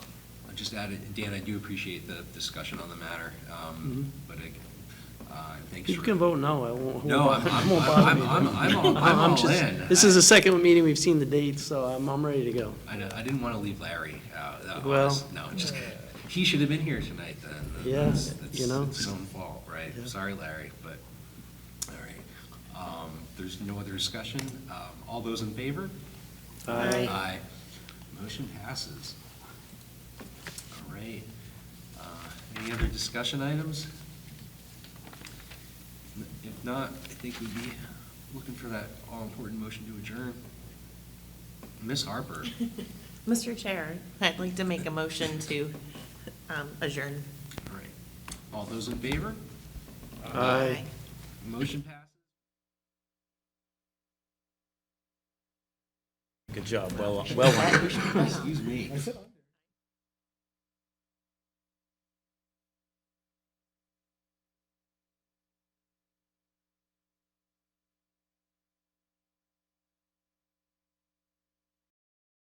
I just added, Dan, I do appreciate the discussion on the matter, um, but I, uh, thanks for. Mm-hmm. You can vote no, I won't. No, I'm, I'm, I'm, I'm, I'm all- I'm I'm all just- in. This is the second meeting we've seen the dates, so I'm, I'm ready to go. I, I didn't want to leave Larry out, uh, Well- honest- no, just, he should have been here tonight then. Yeah, That's- that's- you know. It's his own fault, right? Yeah. Sorry, Larry, but, all right. Um, There's no other discussion. Um, All those in favor? Aye. Aye. Motion passes. All right. Uh, Any other discussion items? If not, I think we'd be looking for that all-important motion to adjourn. Miss Harper, Mr. Chair, I'd like to make a motion to um, adjourn. all right. All those in favor? Aye. Motion passes. Good job, well, well. Excuse me.